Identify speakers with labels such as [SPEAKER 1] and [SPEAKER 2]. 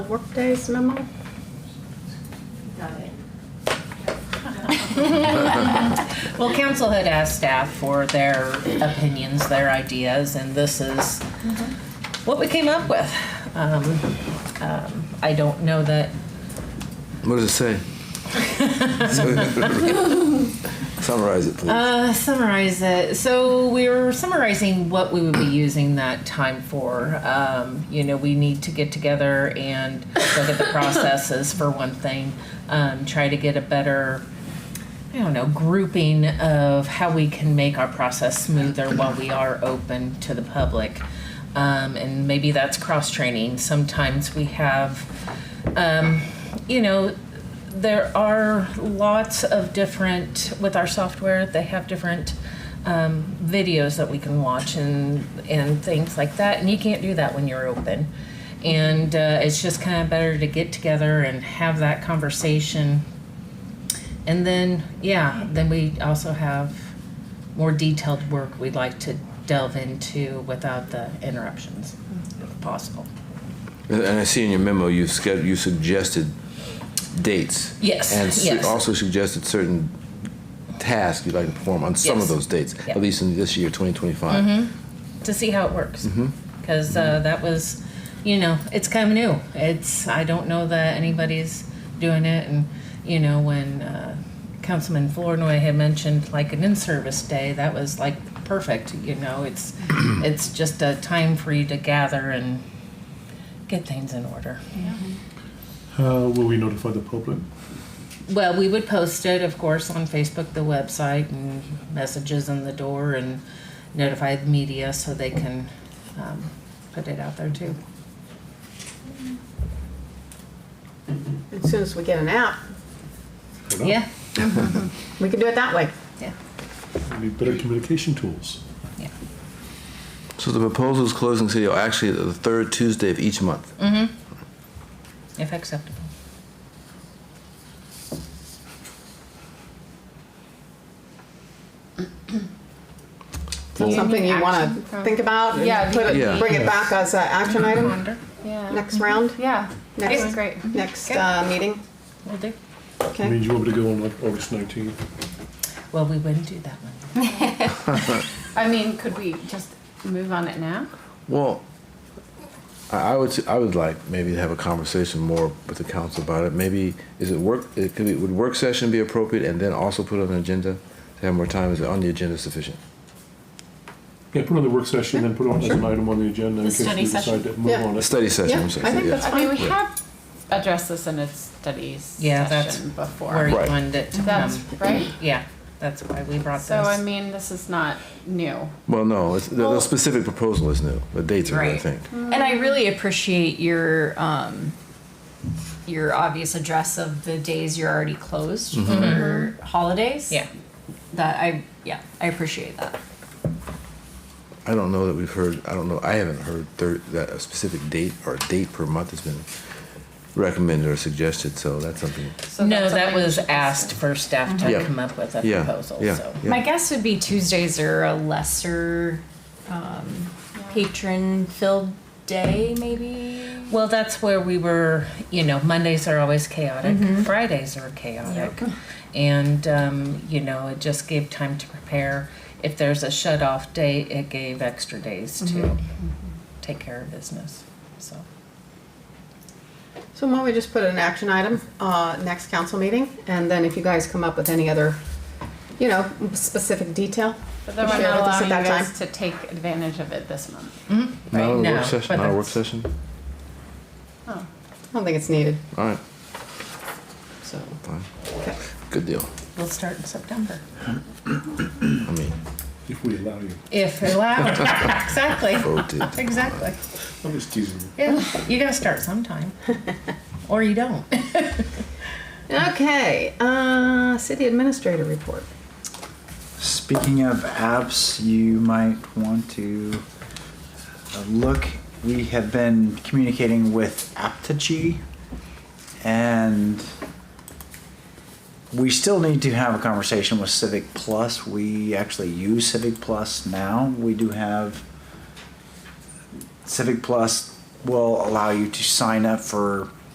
[SPEAKER 1] workdays memo?
[SPEAKER 2] Got it.
[SPEAKER 3] Well, council had asked staff for their opinions, their ideas, and this is what we came up with. Um, um, I don't know that,
[SPEAKER 4] What does it say? Summarize it, please.
[SPEAKER 3] uh, summarize it. So we were summarizing what we would be using that time for. Um, you know, we need to get together and look at the processes for one thing, um, try to get a better I don't know, grouping of how we can make our process smoother while we are open to the public. Um, and maybe that's cross training. Sometimes we have, um, you know, there are lots of different, with our software, they have different um, videos that we can watch and, and things like that. And you can't do that when you're open. And uh, it's just kind of better to get together and have that conversation and then, yeah, then we also have more detailed work we'd like to delve into without the interruptions, if possible.
[SPEAKER 4] And and I see in your memo, you've sched- you suggested dates.
[SPEAKER 3] Yes,
[SPEAKER 4] And su-
[SPEAKER 3] yes.
[SPEAKER 4] also suggested certain tasks you'd like to perform on some of
[SPEAKER 3] Yes.
[SPEAKER 4] those dates,
[SPEAKER 3] Yeah. Mm-hmm.
[SPEAKER 4] at least in this year, 2025.
[SPEAKER 3] to see how it works because uh, that was you know it's kind of new it's i don't know that anybody's doing it and you know when uh, councilman flournoy had mentioned like an in-service day that was like perfect you know it's it's just a time for you to gather and get things in order
[SPEAKER 5] Uh, will we notify the public?
[SPEAKER 3] Well, we would post it, of course, on Facebook, the website, and messages in the door, and notify the media so they can um, put it out there too.
[SPEAKER 1] As soon as we get an app,
[SPEAKER 5] Oh.
[SPEAKER 3] Yeah,
[SPEAKER 1] we can do it that way.
[SPEAKER 3] yeah,
[SPEAKER 5] We need better communication tools.
[SPEAKER 3] yeah.
[SPEAKER 4] So the proposal is closing city hall actually the third Tuesday of each month.
[SPEAKER 3] Mm. If acceptable.
[SPEAKER 1] So
[SPEAKER 4] Well-
[SPEAKER 1] Something you want
[SPEAKER 6] Action
[SPEAKER 1] to
[SPEAKER 6] from-
[SPEAKER 1] think about
[SPEAKER 6] Yeah.
[SPEAKER 1] and put
[SPEAKER 4] Yeah.
[SPEAKER 1] it, bring it back as an action item
[SPEAKER 6] Yeah.
[SPEAKER 1] next round,
[SPEAKER 6] Yeah.
[SPEAKER 1] Next.
[SPEAKER 6] That was great.
[SPEAKER 1] next
[SPEAKER 3] Okay.
[SPEAKER 1] uh, meeting.
[SPEAKER 3] Will do.
[SPEAKER 5] I mean,
[SPEAKER 1] Okay.
[SPEAKER 5] you want me to go on like August 19th?
[SPEAKER 3] Well, we wouldn't do that one.
[SPEAKER 6] I mean, could we just move on it now?
[SPEAKER 4] Well, I I would, s- I would like maybe to have a conversation more with the council about it. Maybe, is it work, it could be, would work session be appropriate and then also put on an agenda? To have more time, is it on the agenda sufficient?
[SPEAKER 5] Yeah, put on the work session and put on as an item on the agenda in
[SPEAKER 3] The
[SPEAKER 5] case we
[SPEAKER 3] study session.
[SPEAKER 5] decide to move
[SPEAKER 1] Yeah.
[SPEAKER 5] on
[SPEAKER 4] A
[SPEAKER 5] it.
[SPEAKER 4] study session,
[SPEAKER 1] Yeah,
[SPEAKER 4] I'm
[SPEAKER 1] I think
[SPEAKER 4] sorry,
[SPEAKER 1] that's
[SPEAKER 4] yeah.
[SPEAKER 6] I mean, we have addressed this in a studies
[SPEAKER 3] Yeah, that's
[SPEAKER 6] session before.
[SPEAKER 3] Where you
[SPEAKER 4] Right.
[SPEAKER 3] wanted it to
[SPEAKER 6] That's
[SPEAKER 3] come.
[SPEAKER 6] right.
[SPEAKER 3] Yeah, that's why we brought this.
[SPEAKER 6] So I mean, this is not new.
[SPEAKER 4] Well, no, it's, the, the
[SPEAKER 6] Well-
[SPEAKER 4] specific proposal is new, the dates are, new, I
[SPEAKER 7] Right.
[SPEAKER 4] think.
[SPEAKER 7] And I really appreciate your um, your obvious address of the days you're already closed for holidays.
[SPEAKER 3] Yeah.
[SPEAKER 7] That I yeah I appreciate that.
[SPEAKER 4] I don't know that we've heard, I don't know, I haven't heard thir- that a specific date or a date per month has been recommended or suggested, so that's something.
[SPEAKER 6] So
[SPEAKER 3] No,
[SPEAKER 6] that's
[SPEAKER 3] that
[SPEAKER 6] something we
[SPEAKER 3] was
[SPEAKER 6] should
[SPEAKER 3] asked for staff
[SPEAKER 4] Yeah.
[SPEAKER 3] to come up with a
[SPEAKER 4] Yeah,
[SPEAKER 3] proposal,
[SPEAKER 4] yeah,
[SPEAKER 3] so.
[SPEAKER 4] yeah.
[SPEAKER 7] My guess would be Tuesdays are a lesser um, patron filled day maybe.
[SPEAKER 3] Well, that's where we were, you know, Mondays are always chaotic, Fridays are chaotic. And, um, you know, it just gave time to prepare. If there's a shut off day, it gave extra days to take care of business. So,
[SPEAKER 1] So why don't we just put an action item, uh, next council meeting? And then if you guys come up with any other, you know, specific detail,
[SPEAKER 6] But then we're
[SPEAKER 1] share
[SPEAKER 6] not
[SPEAKER 1] with us
[SPEAKER 6] allowing
[SPEAKER 1] at
[SPEAKER 6] you
[SPEAKER 1] that
[SPEAKER 6] guys
[SPEAKER 1] time.
[SPEAKER 6] to take advantage of it this month.
[SPEAKER 4] Not a
[SPEAKER 3] No,
[SPEAKER 4] work session,
[SPEAKER 3] but
[SPEAKER 4] not a work
[SPEAKER 3] that's-
[SPEAKER 4] session?
[SPEAKER 6] Oh.
[SPEAKER 1] I don't think it's needed,
[SPEAKER 4] All right,
[SPEAKER 1] so.
[SPEAKER 4] fine,
[SPEAKER 1] okay.
[SPEAKER 4] good deal.
[SPEAKER 3] we'll start in September.
[SPEAKER 4] I mean,
[SPEAKER 5] If we allow you.
[SPEAKER 3] If allowed. exactly.
[SPEAKER 4] oh, dude.
[SPEAKER 3] Exactly.
[SPEAKER 5] I'm just teasing you.
[SPEAKER 3] Yeah. You got to start sometime, or you don't.
[SPEAKER 1] Okay, uh, city administrator report.
[SPEAKER 8] Speaking of apps, you might want to uh, look. We have been communicating with Aptogee, and we still need to have a conversation with Civic Plus. We actually use Civic Plus now. We do have Civic Plus will allow you to sign up for